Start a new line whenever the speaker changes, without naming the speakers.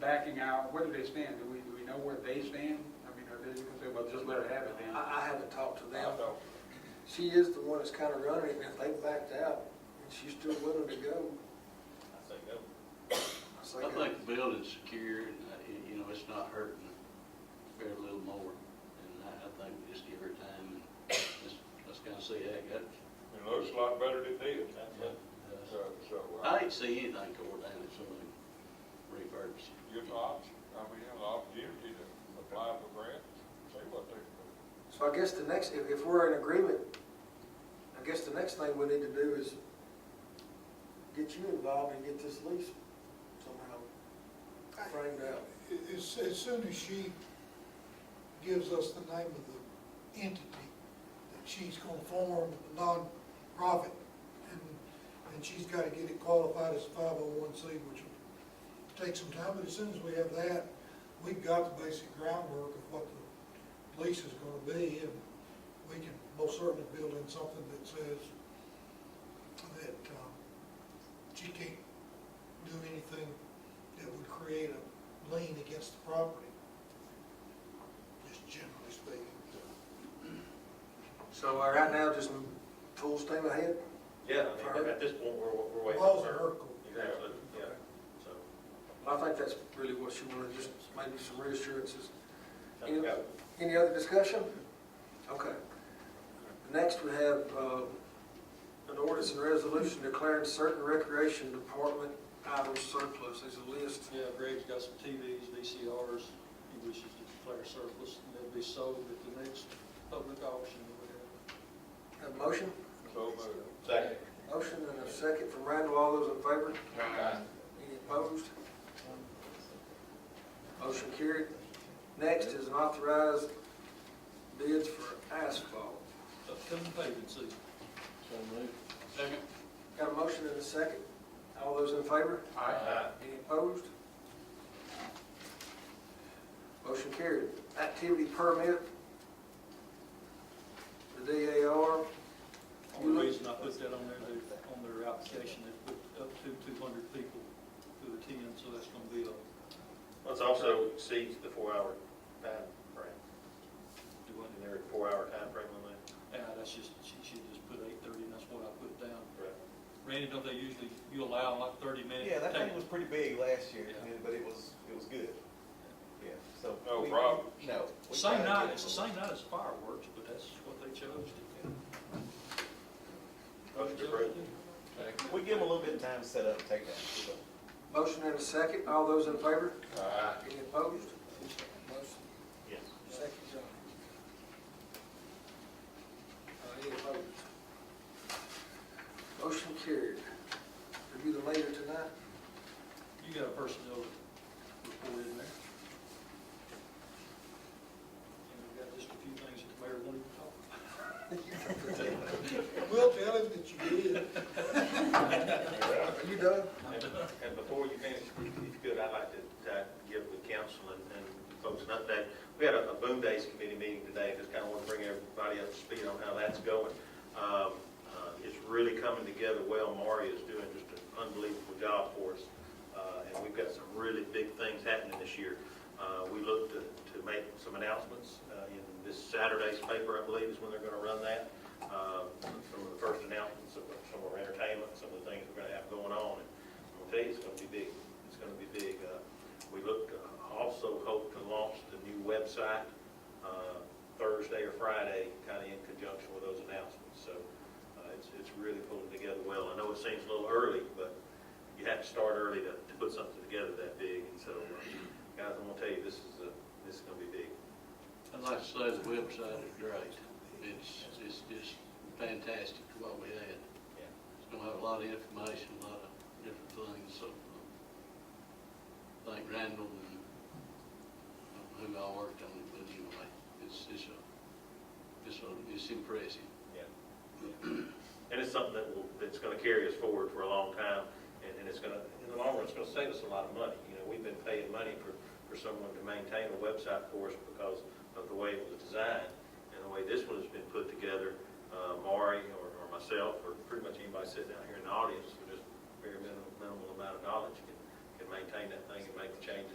backing out, where do they stand? Do we, do we know where they stand? I mean, are they, you can say, well, just let her have it then.
I, I haven't talked to them.
So,
She is the one that's kind of running it, and if they backed out, and she's still willing to go,
I say go.
it's
I
like, a-
think the building's secure and, uh, y- you know, it's not hurting very little more. And I, I think we just give her time and let's, let's kind of see how it goes.
It looks a lot better than it did.
Uh,
So, so,
I
uh,
didn't see anything tore down if somebody refurbished.
you're an option, I mean, you have an opportunity to apply for grants, see what they can
so I guess the next, if, if we're in agreement, I guess the next thing we need to do is get you involved and get this lease somehow framed out.
As, as soon as she gives us the name of the entity that she's gonna form, a nonprofit, and, and she's gotta get it qualified as five oh one C, which will take some time, but as soon as we have that, we've got the basic groundwork of what the lease is gonna be, and we can most certainly build in something that says that, um, she can't do anything that would create a lien against the property, just generally speaking.
So uh, right now, just full steam ahead?
Yeah, I mean, at this point, we're, we're waiting.
All's
for-
her call.
Exactly, yeah, so.
I think that's really what she wanted, just maybe some reassurances.
Let's
Any
go.
any other discussion? Okay. Next, we have uh, an ordinance and resolution declaring certain recreation department items surplus. There's a list.
Yeah, Greg's got some TVs, VCRs, he wishes to declare surplus, and they'll be sold at the next public auction or whatever.
Have a motion?
do. So moved.
Second.
Motion and a second from Randall. All those in favor? Any opposed? Motion carried. Next is an authorized bids for asphalt.
Upcoming paving season.
Second.
Got a motion and a second? All those in favor?
Aye.
Any opposed? Motion carried. Activity permit, the DAR,
Only reason I put that on there, they- on their application, they put up to two hundred people to attend, so that's gonna be a,
Let's also exceeds the four-hour time frame.
do what,
And there are four-hour time frame on that.
yeah, that's just, she, she just put eight thirty, and that's what I put down.
Right.
Randy, don't they usually, you allow like thirty minutes?
Yeah, that
Take-
thing was pretty big last year,
Yeah.
but it was, it was good. Yeah, so.
No
we-
problem.
No. we tried
Same
to
night,
get
it's the
it.
same night as fireworks, but that's what they chose to do.
Motion to approve.
We give them a little bit of time to set up, and take that. so.
motion and a second. All those in favor?
Aye.
Any opposed? Motion,
Yes.
second, John. Uh, Any opposed? Motion carried. Review them later tonight.
You got a personnel report in there. And we've got just a few things that the mayor wanted to talk about.
We'll tell him that you did.
Are you done?
And and before you finish, if you could, I'd like to uh, give the council and and folks an update. We had a a Boom Days Committee meeting today, just kind of want to bring everybody up to speed on how that's going. Um, uh, It's really coming together well. Maury is doing just an unbelievable job for us, Uh, and we've got some really big things happening this year. Uh, We look to to make some announcements uh, in this Saturday's paper, I believe, is when they're going to run that. Uh, Some of the first announcements of some of our entertainment, some of the things we're going to have going on. And I'll tell you, it's gonna be big. It's gonna be big. Uh, We look, uh, also hope to launch the new website uh, Thursday or Friday, kind of in conjunction with those announcements. So uh, it's, it's really pulling together well. I know it seems a little early, but you have to start early to, to put something together that big. And so, uh, guys, I'm gonna tell you, this is, a- this is gonna be big.
I'd like to say the website is great. It's, it's just fantastic what we had.
Yeah.
It's gonna have a lot of information, a lot of different things, so. um, Thank Randall and uh, who I worked on it, but anyway, it's, it's a, it's a, it's impressive.
And it's something that will, that's gonna carry us forward for a long time, and, and it's gonna, in the long run, it's gonna save us a lot of money. You know, we've been paying money for, for someone to maintain a website for us because of the way it was designed, and the way this one has been put together. Uh, Maury, or, or myself, or pretty much anybody sitting down here in the audience, for just very minimal, minimal amount of knowledge, can, can maintain that thing and make the changes